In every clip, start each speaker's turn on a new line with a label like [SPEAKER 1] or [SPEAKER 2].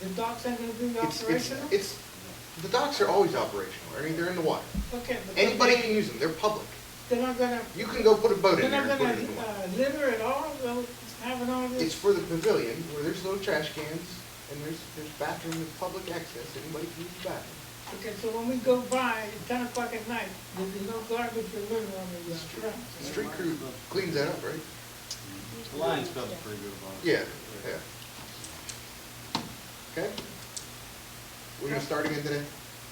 [SPEAKER 1] the docks aren't gonna be
[SPEAKER 2] It's, it's,
[SPEAKER 1] operational?
[SPEAKER 2] it's, the docks are always operational, Ernie, they're in the water.
[SPEAKER 1] Okay, but they're
[SPEAKER 2] Anybody
[SPEAKER 1] not,
[SPEAKER 2] can use them, they're public.
[SPEAKER 1] they're not gonna,
[SPEAKER 2] You can go put a boat
[SPEAKER 1] they're
[SPEAKER 2] in there
[SPEAKER 1] not
[SPEAKER 2] and put
[SPEAKER 1] gonna
[SPEAKER 2] it in the water.
[SPEAKER 1] uh, litter at all, though, having all
[SPEAKER 2] It's
[SPEAKER 1] this?
[SPEAKER 2] for the pavilion, where there's little trash cans, and there's, there's bathroom with public access, anybody can use the bathroom.
[SPEAKER 1] Okay, so when we go by at ten o'clock at night, there'll be no garbage or litter on the uh,
[SPEAKER 2] Street-
[SPEAKER 1] grounds.
[SPEAKER 2] Street crew cleans that up, right?
[SPEAKER 3] The Lions Club's pretty good about it.
[SPEAKER 2] Yeah, yeah. Okay? We're gonna start again today?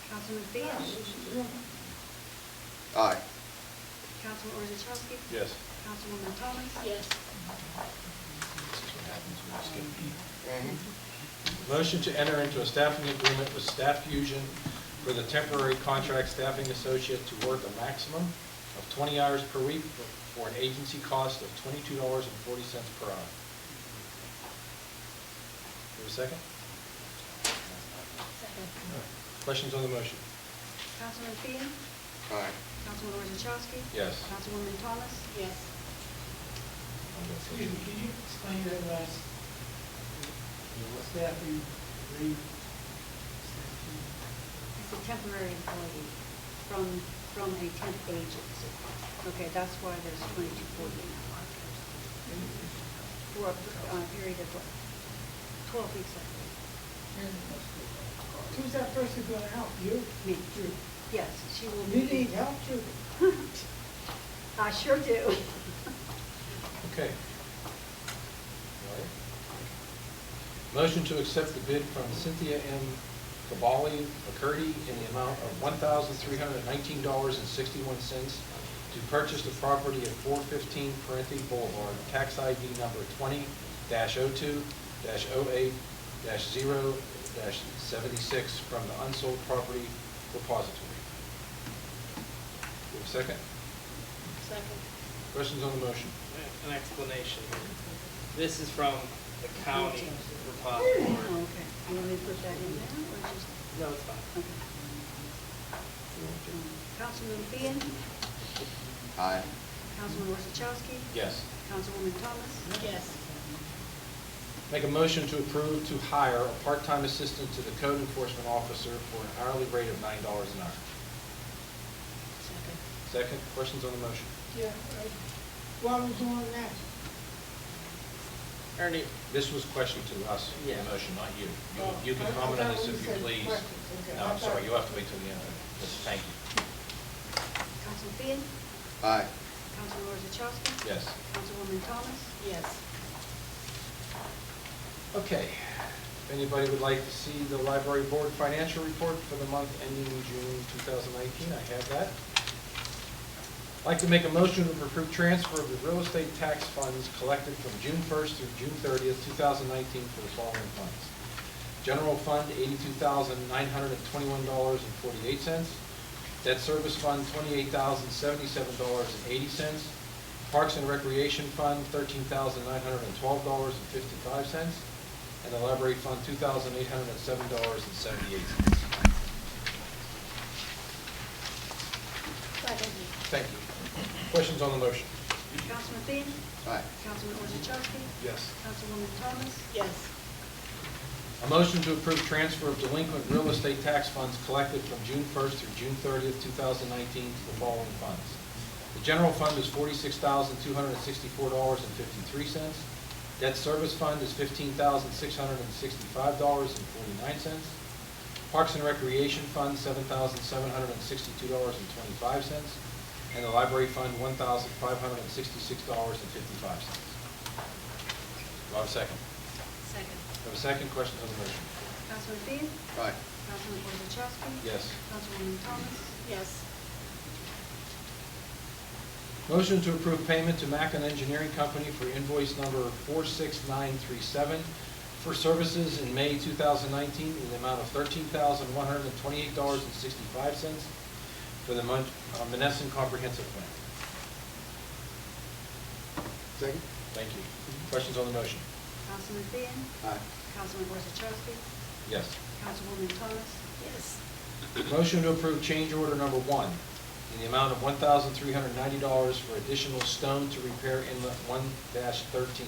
[SPEAKER 4] Councilman
[SPEAKER 1] Yeah,
[SPEAKER 4] Fitch.
[SPEAKER 1] yeah.
[SPEAKER 2] Aye.
[SPEAKER 4] Councilman Orzachowski.
[SPEAKER 5] Yes.
[SPEAKER 4] Councilwoman Thomas.
[SPEAKER 6] yes.
[SPEAKER 5] This is what happens when you skip
[SPEAKER 2] Mhm.
[SPEAKER 5] beat. Motion to enter into a staffing agreement with Staff Fusion for the temporary contract staffing associate to work a maximum of 20 hours per week for an agency cost of $22.40 per hour. Have a second? Questions on the motion?
[SPEAKER 4] Councilman Finn.
[SPEAKER 2] Aye.
[SPEAKER 4] Councilman Orzachowski.
[SPEAKER 5] Yes.
[SPEAKER 4] Councilwoman Thomas.
[SPEAKER 6] Yes.
[SPEAKER 1] Excuse me, can you explain that last, what's that, you read?
[SPEAKER 4] It's a temporary employee from, from a temp agency. Okay, that's why there's twenty-two forty an hour. For a uh, period of what? Twelve weeks, I think.
[SPEAKER 1] Who's that person gonna help you?
[SPEAKER 4] Me. Yes, she will
[SPEAKER 1] You
[SPEAKER 4] be.
[SPEAKER 1] need help too.
[SPEAKER 4] I sure do.
[SPEAKER 5] Okay. All right. Motion to accept the bid from Cynthia M. Cabali McCurdy in the amount of one thousand three hundred nineteen dollars and sixty-one cents to purchase the property at four fifteen Parenti Boulevard, tax ID number twenty dash oh two dash oh eight dash zero dash seventy-six from the unsold property repository. Do we have a Second,
[SPEAKER 6] Second.
[SPEAKER 5] questions on the motion?
[SPEAKER 7] an explanation. This is from the county
[SPEAKER 4] Okay,
[SPEAKER 7] repository.
[SPEAKER 4] you want me to put that in there or just?
[SPEAKER 7] No, it's fine.
[SPEAKER 4] okay. Councilman Finn.
[SPEAKER 2] Aye.
[SPEAKER 4] Councilman Orzachowski.
[SPEAKER 5] Yes.
[SPEAKER 4] Councilwoman Thomas.
[SPEAKER 6] Yes.
[SPEAKER 5] Make a motion to approve to hire a part-time assistant to the code enforcement officer for an hourly rate of nine dollars an hour. Second, questions on the motion?
[SPEAKER 1] Yeah, right. Why was you on that?
[SPEAKER 7] Ernie,
[SPEAKER 5] This was question to us, the
[SPEAKER 7] Yeah.
[SPEAKER 5] motion, not you.
[SPEAKER 1] Oh,
[SPEAKER 5] You you
[SPEAKER 1] I- I
[SPEAKER 5] can comment on
[SPEAKER 1] thought
[SPEAKER 5] this
[SPEAKER 1] we
[SPEAKER 5] if you
[SPEAKER 1] said
[SPEAKER 5] please.
[SPEAKER 1] questions. Okay, I
[SPEAKER 5] No, I'm sorry,
[SPEAKER 1] thought-
[SPEAKER 5] you'll have to wait till the end. of this. Thank you.
[SPEAKER 4] Councilman Finn.
[SPEAKER 2] Aye.
[SPEAKER 4] Councilman Orzachowski.
[SPEAKER 5] Yes.
[SPEAKER 4] Councilwoman Thomas.
[SPEAKER 6] Yes.
[SPEAKER 5] Okay. If anybody would like to see the library board financial report for the month ending June 2019, I have that. I'd like to make a motion to approve transfer of the real estate tax funds collected from June 1st through June 30th, 2019 for the following funds. General Fund, $82,921.48. Debt Service Fund, $28,077.80. Parks and Recreation Fund, $13,912.55. And the Library Fund, $2,807.78.
[SPEAKER 6] Second.
[SPEAKER 5] Thank you. Questions on the motion?
[SPEAKER 4] Councilman Finn.
[SPEAKER 2] Aye.
[SPEAKER 4] Councilman Orzachowski.
[SPEAKER 5] Yes.
[SPEAKER 4] Councilwoman Thomas.
[SPEAKER 6] Yes.
[SPEAKER 5] A motion to approve transfer of delinquent real estate tax funds collected from June 1st through June 30th, 2019 to the following funds. The general fund is $46,264.53. Debt service fund is $15,665.49. Parks and Recreation Fund, $7,762.25. And the Library Fund, $1,566.55. Do I have a second?
[SPEAKER 4] Second.
[SPEAKER 5] Have a second, questions on the motion?
[SPEAKER 4] Councilman Finn.
[SPEAKER 2] Aye.
[SPEAKER 4] Councilman Orzachowski.
[SPEAKER 5] Yes.
[SPEAKER 4] Councilwoman Thomas.
[SPEAKER 6] Yes.
[SPEAKER 5] Motion to approve payment to Mackin Engineering Company for invoice number 46937 for services in May 2019 in the amount of $13,128.65 for the Mon- uh, Menneson Comprehensive Plan.
[SPEAKER 2] Second?
[SPEAKER 5] Thank you. Questions on the motion?
[SPEAKER 4] Councilman Finn.
[SPEAKER 2] Aye.
[SPEAKER 4] Councilman Orzachowski.
[SPEAKER 5] Yes.
[SPEAKER 4] Councilwoman Thomas.
[SPEAKER 6] Yes.
[SPEAKER 5] Motion to approve change order number one in the amount of $1,390 for additional stone to repair inlet 1-13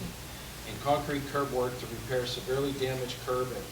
[SPEAKER 5] and concrete curb work to repair severely damaged curb at